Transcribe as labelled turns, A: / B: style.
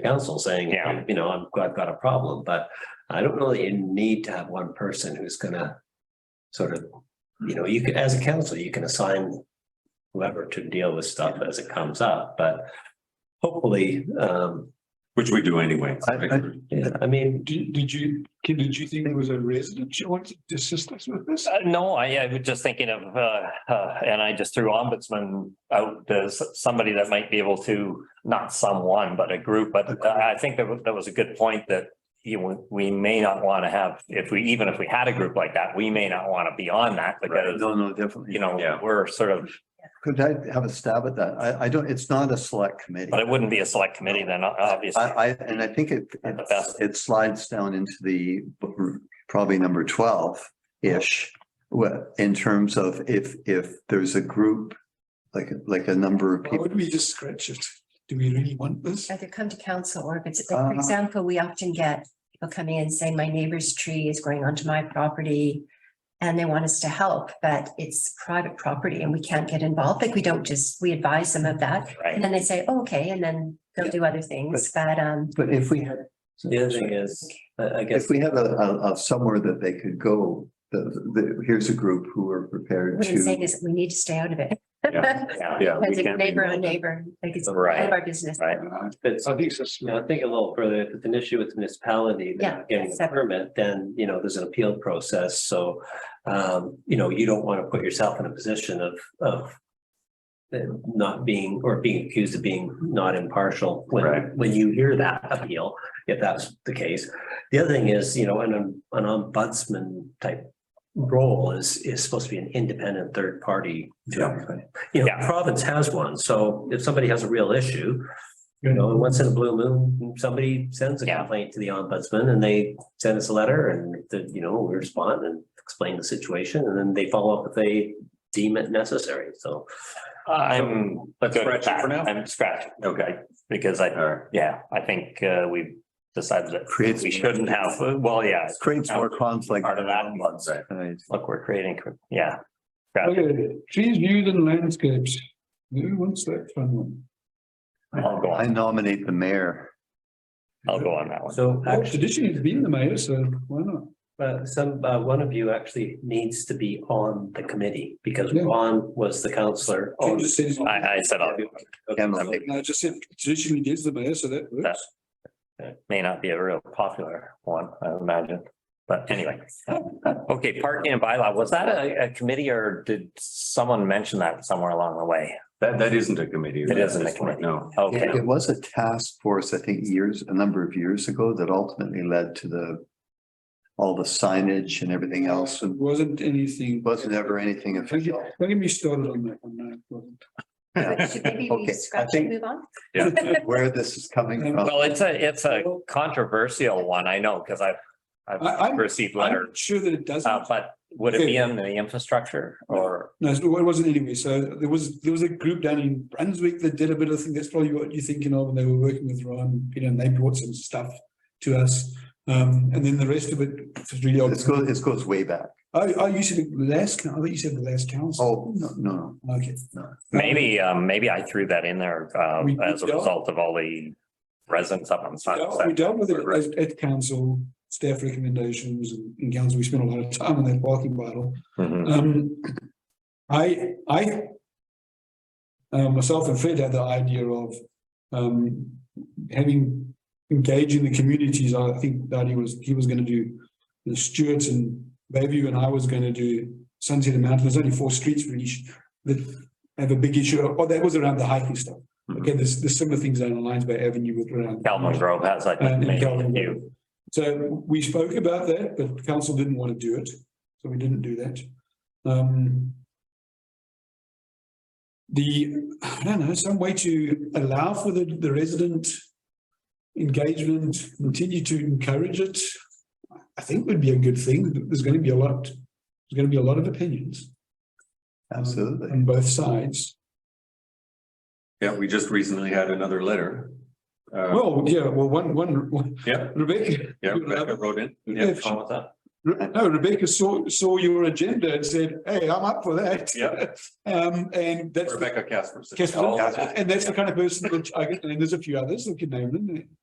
A: council saying,
B: Yeah.
A: you know, I'm, I've got a problem, but I don't know that you need to have one person who's gonna sort of, you know, you could, as a council, you can assign whoever to deal with stuff as it comes up, but hopefully, um,
C: Which we do anyway.
D: I- I-
A: yeah, I mean,
D: Did, did you, kid, did you think there was a resident you wanted to assist us with this?
B: Uh, no, I, I was just thinking of, uh, uh, and I just threw ombudsman out as somebody that might be able to, not someone, but a group, but I I think that, wa- that was a good point that you, know, we may not want to have, if we, even if we had a group like that, we may not want to be on that because,
E: No, no, definitely.
B: you know,
C: Yeah.
B: we're sort of,
E: Could I have a stab at that? I, I don't, it's not a select committee.
B: but it wouldn't be a select committee then, o- obviously.
E: I, I, and I think it, it's- it slides down into the probably number twelve-ish. wh- in terms of if, if there's a group, like, like a number of
D: Why
E: people.
D: would we just scratch it? Do we really want this?
F: Either come to council or if it's, like, for
E: Uh.
F: example, we often get people coming in saying, my neighbor's tree is growing onto my property. And they want us to help, but it's private property and we can't get involved. Like, we don't just, we advise them of that. And
B: Right,
F: then they say, "Oh, okay, and then they'll do other things, but um,
E: But if we had,
A: the other thing is, I I guess.
E: if we had a, a, a somewhere that they could go, the, the, here's a group who are prepared
F: what I'm saying
E: to.
F: is we need to stay out of it.
C: Yeah.
B: yeah,
C: Yeah. we
F: As a
C: can't be
F: neighbor on
C: involved.
F: neighbor, like it's out of
B: right,
F: our business.
B: right.
A: It's,
D: I think it's,
A: you know, think a little further, if it's an issue with the municipality, they're not
F: Yeah,
A: getting a
F: separate.
A: permit, then, you know, there's an appeal process, so. Um, you know, you don't want to put yourself in a position of, of. uh, Not being, or being accused of being not impartial when,
C: Right.
A: when you hear that appeal, if that's the case. The other thing is, you know, an, an ombudsman type role is, is supposed to be an independent third party. to everything. You know,
B: Yeah.
A: province has one, so if somebody has a real issue, you know, once in a blue moon, somebody sends a
B: Yeah.
A: complaint to the ombudsman and they send us a letter and, the- you know, we respond and explain the situation and then they follow up if they deem it necessary. So
B: I'm.
C: Let's
B: good
C: scratch
B: with
C: it for
B: that.
C: now?
B: I'm scratching,
C: Okay,
B: because I,
C: all right.
B: yeah, I think, uh, we decided that
E: Creates-
B: we shouldn't have, well, yeah,
E: Creates more conflict.
B: Part of that.
E: Right.
B: look, we're creating, yeah.
D: okay, trees, views and landscapes. Who wants that fun one?
B: I'll go
E: I
B: on,
E: nominate the mayor.
B: I'll go on that one.
A: so
D: Well,
A: actually,
D: Oh, traditionally, it's been the mayor, so why not?
A: uh, some, uh, one of you actually needs to be on the committee because
D: Yeah.
A: Ron was the counselor.
D: Can
A: Oh, on-
D: you just say-
B: I, I said, I'll-
E: Emily.
D: No, I just said traditionally it is the mayor, so that works.
B: may not be a real popular one, I imagine, but anyway. Okay, parking and bylaw, was that a, a committee or did someone mention that somewhere along the way?
C: That, that isn't a committee.
B: It isn't a
C: That's right,
B: committee.
C: No.
B: Okay,
E: It it was a task force, I think, years, a number of years ago that ultimately led to the. All the signage and everything else and
D: Wasn't anything.
E: wasn't ever anything
D: Don't
E: official.
D: get- don't get me started on that one. no, it wasn't.
F: Should maybe
E: Okay, I
F: we scratch and
E: think-
F: move on?
E: Where this is coming from.
B: well, it's a, it's a controversial one, I know, because I've,
D: I-
B: I've
D: I'm-
B: received letters.
D: I'm sure that it doesn't.
B: Uh, but would it be in the infrastructure or,
D: No, it wasn't anyway. So there was, there was a group down in Brunswick that did a bit of thing. That's probably what you're thinking of. And they were working with Ron, and Peter, and they brought some stuff to us. Um, and then the rest of it was really old.
E: This goes, this goes way back.
D: Oh, oh, you said the last, coun- I thought you said the last council.
E: Oh, no, no, no.
D: Okay.
E: No.
B: maybe, um, maybe I threw that in there, uh,
D: We- we
B: as a
D: don't-
B: result of all the residents up on
D: Yeah, We
B: Sunset.
D: dealt with it
C: Right.
D: at, at council, staff recommendations and in council, we spent a lot of time on that parking battle.
B: Mhm.
D: Um, I, I. uh, myself and Fred had the idea of, um, having, engaging the communities, I think that he was, he was gonna do. The Stewarts and Bayview and I was gonna do Sunset and Mountain, there's only four streets really sh- that have a big issue, oh, that was around the hiking stuff.
C: Mhm.
D: Okay, there's, there's similar things down on Lions Bay Avenue with around.
B: Calvin Grove has, I think,
D: And in
B: maybe a
D: Calvin
B: few.
D: Grove. So we spoke about that, but council didn't want to do it, so we didn't do that. Um. The, I don't know, some way to allow for the, the resident engagement, continue to encourage it. I think would be a good thing. There's going to be a lot, there's going to be a lot of opinions
B: Mm-hmm.
E: Absolutely.
D: on both sides.
C: Yeah, we just recently had another letter. Uh,
D: Well, yeah, well, one, one, one-
C: yeah,
D: Rebecca.
C: yeah,
D: you
C: Rebecca
D: have-
C: wrote in. Yeah,
D: if she- Re- No, Rebecca saw, saw your agenda and said, hey, I'm up for that.
C: Yeah.
D: Um, and
C: Oh,
D: that's.
C: Rebecca Casper.
D: Casper,
C: Oh,
D: and that's the kind of person which I, and there's a few others that can name them.